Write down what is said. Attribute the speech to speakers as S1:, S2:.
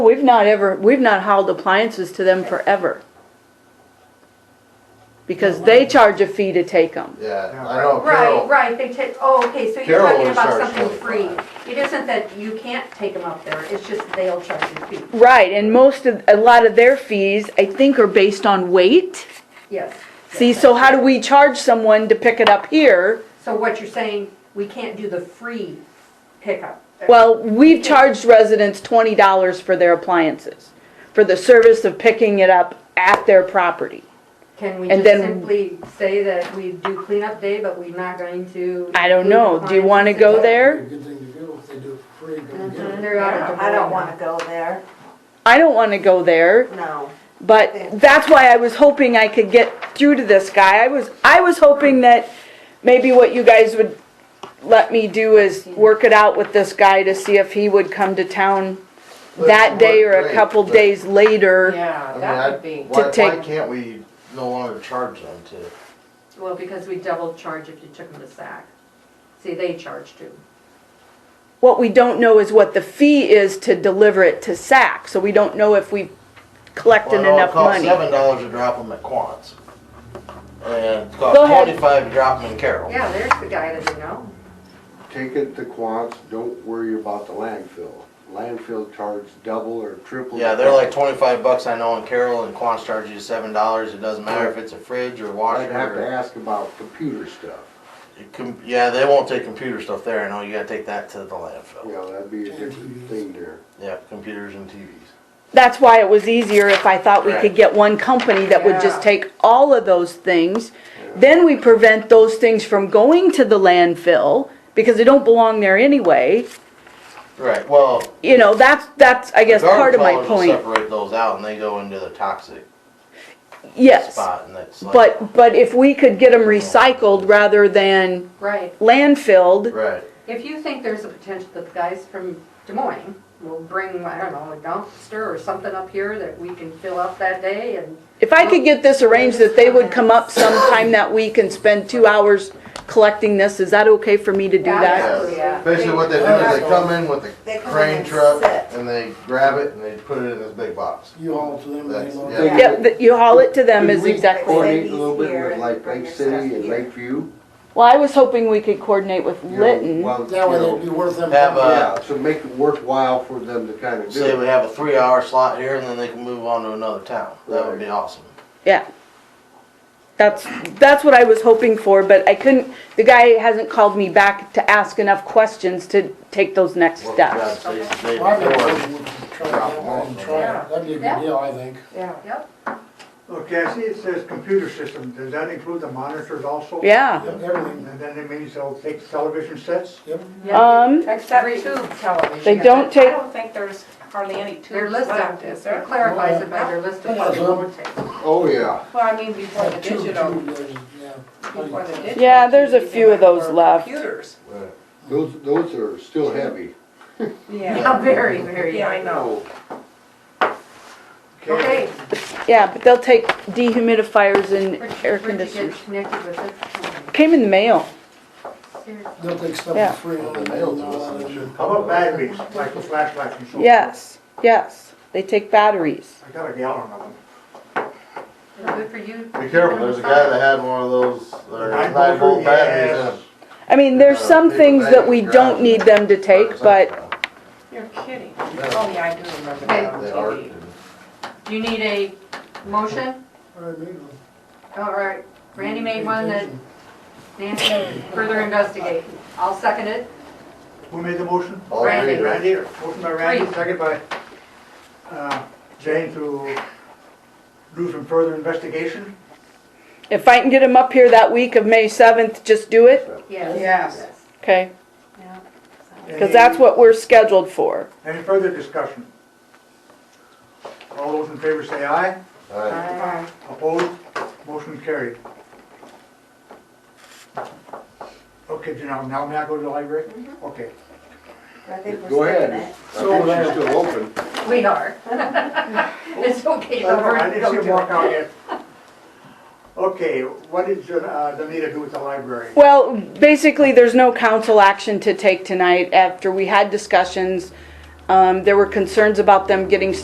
S1: We've not ever, we've not hauled appliances to them forever. Because they charge a fee to take them.
S2: Yeah,
S3: Yeah,
S2: I know
S4: Right,
S2: Carol,
S4: right, they take, oh, okay, so you're
S2: Carol
S4: talking
S2: will
S4: about
S2: charge
S4: something free.
S2: 25.
S4: It isn't that you can't take them up there, it's just they'll charge you fee,
S1: Right, and most of, a lot of their fees, I think, are based on weight.
S4: yes.
S1: See, so how do we charge someone to pick it up here?
S4: So what you're saying, we can't do the free pickup?
S1: Well, we've charged residents twenty dollars for their appliances, for the service of picking it up at their property.
S4: Can we
S1: and
S4: just
S1: then-
S4: simply say that we do cleanup day, but we're not going to?
S1: I don't know, do you wanna go there?
S3: Good thing to do if they do it for free, go get it.
S4: They're out of
S5: I don't wanna go there,
S1: I don't wanna go there.
S5: no.
S1: But that's why I was hoping I could get through to this guy. I was, I was hoping that maybe what you guys would let me do is work it out with this guy to see if he would come to town that day or a couple days later.
S2: I
S6: Yeah,
S2: mean,
S6: that
S2: I,
S6: would be,
S2: why, why
S1: take-
S2: can't we no longer charge them to?
S4: Well, because we double charge if you took them to SAC. See, they charge too.
S1: What we don't know is what the fee is to deliver it to SAC, so we don't know if we collected
S2: Well, no, it
S1: enough
S2: costs
S1: money.
S2: Seven dollars to drop them at Quants. And it
S1: Go
S2: costs
S1: ahead.
S2: twenty-five to drop them in Carol.
S4: Yeah, there's the guy that we know.
S7: Take it to Quants, don't worry about the landfill. Landfill charge double or triple.
S2: Yeah, they're like twenty-five bucks I know in Carol and Quants charges you seven dollars. It doesn't matter if it's a fridge or washer.
S7: I'd have to
S2: or-
S7: ask about computer stuff.
S2: It com- Yeah, they won't take computer stuff there. I know you gotta take that to the landfill.
S7: Yeah, that'd be a different thing there.
S2: Yeah, computers and TVs.
S1: That's why it was easier if I thought we could
S2: Correct.
S1: get one company that would just take all of those things. Then we prevent those things from going to the landfill because they don't belong there anyway.
S2: Right, well.
S1: You know, that's, that's, I guess,
S2: the
S1: part
S2: garbage
S1: of my
S2: haulers will
S1: point.
S2: Separate those out and they go into the toxic
S1: Yes.
S2: spot and that's like.
S1: But, but if we could get them recycled rather than
S4: Right.
S1: landfilled,
S2: Right,
S4: If you think there's a potential that the guys from Des Moines will bring, I don't know, a dumpster or something up here that we can fill up that day and,
S1: if I could get this arranged that they would come up sometime that week and spend two hours collecting this, is that okay for me to do that?
S2: Yeah. basically what they do is they come in with
S5: They
S2: the
S5: come in
S2: crane
S5: and
S2: truck
S5: sit.
S2: and they grab it and they put it in this big box.
S3: You haul to them, they
S2: That's-
S3: load
S2: yeah.
S3: it.
S1: Yep, that you haul it to them
S7: Could
S1: is
S7: we
S1: exactly.
S7: Coordinate a little bit
S5: Here
S7: with
S5: and
S7: like
S5: bring
S7: Lake
S5: your stuff
S7: City and
S5: here.
S7: Lakeview.
S1: Well, I was hoping we could coordinate with
S7: you know,
S1: Lytton.
S7: well,
S3: That way
S7: you
S3: it'd
S7: know,
S3: be worth them.
S2: Have a-
S7: Yeah, so make it worthwhile for them to kind of do
S2: Say we
S7: it.
S2: have a three hour slot here and then they can move on to another town. That would be awesome.
S1: Yeah. That's, that's what I was hoping for, but I couldn't, the guy hasn't called me back to ask enough questions to take those next
S2: Work
S1: steps.
S2: the jobs they- they
S3: Well, I'd be
S2: before.
S3: willing to try that one and try it. That'd be a
S4: Yeah.
S3: good deal, I think.
S5: Yeah.
S4: yep,
S8: Okay, I see it says computer system, does that include the monitors also?
S1: Yeah,
S3: Yep, Everything.
S8: And then it means they'll take television sets?
S1: um,
S4: except
S6: Three-
S4: tube television.
S1: they don't
S6: I
S1: take,
S6: don't think there's hardly any
S4: Their
S6: tubes
S4: list
S6: left,
S4: of,
S6: is
S4: it
S6: there?
S4: clarifies it by their list of what it will take.
S7: Oh, yeah.
S6: Well, I mean, before the
S3: Like two,
S6: digital,
S3: two, there's- yeah.
S6: before the digital.
S1: Yeah, there's a
S6: TV,
S1: few of
S6: there
S1: those
S6: were
S1: left.
S6: Computers,
S2: Right.
S7: Those, those are still heavy.
S6: yeah,
S4: Yeah, very, very.
S6: yeah, I know.
S4: Okay,
S1: yeah, but they'll take dehumidifiers and
S4: where'd you-
S1: air
S4: where'd you
S1: conditioners.
S4: get connected with it?
S1: Came in the mail.
S4: Seriously.
S3: They'll take stuff
S1: Yeah.
S3: for free.
S2: Well,
S3: and
S2: the
S3: then
S2: mail to
S3: they'll
S2: us,
S3: allow
S2: I'm
S3: them
S2: sure.
S3: to-
S8: How about batteries, like the flashlights and so forth?
S1: Yes, yes, they take batteries.
S8: I got a gallon of them.
S4: Good for you.
S2: Be careful, there's a guy that had one of those, uh,
S8: Nine
S2: nine volt
S8: volt,
S2: batteries in
S8: yes.
S2: it.
S1: I mean, there's
S2: Uh,
S1: some
S2: paper
S1: things that
S2: bags,
S1: we
S2: garage
S1: don't need them to take, but
S6: You're kidding. Oh, yeah, I do remember
S4: Okay.
S6: that on
S2: They are.
S6: TV.
S4: Do you need a motion?
S3: All right, maybe.
S4: All right, Randy made one that Nancy further investigate. I'll second it.
S8: Who made the motion?
S2: All
S4: Randy.
S2: three of them.
S8: Randy, motion by Randy,
S4: Three.
S8: second by, uh, Jane to do some further investigation.
S1: if I can get them up here that week of May 7th, just do it,
S4: Yes.
S6: Yes.
S1: okay?
S4: Yeah.
S1: Because that's what we're scheduled for.
S8: Any any further discussion? All those in favor say aye.
S2: Alright.
S4: Aye.
S8: Opposed? Motion carried. Okay, Janelle, now may I go to the library? Okay.
S5: I think we're
S7: Go
S5: saving
S7: ahead.
S5: it.
S7: I think she's still open.
S4: We are. It's okay, though.
S8: I
S4: we're-
S8: didn't see him walk out yet. Okay, what did uh, Danita do with the library?
S1: Well, basically, there's no council action to take tonight after we had discussions. um, Um, there were concerns about them getting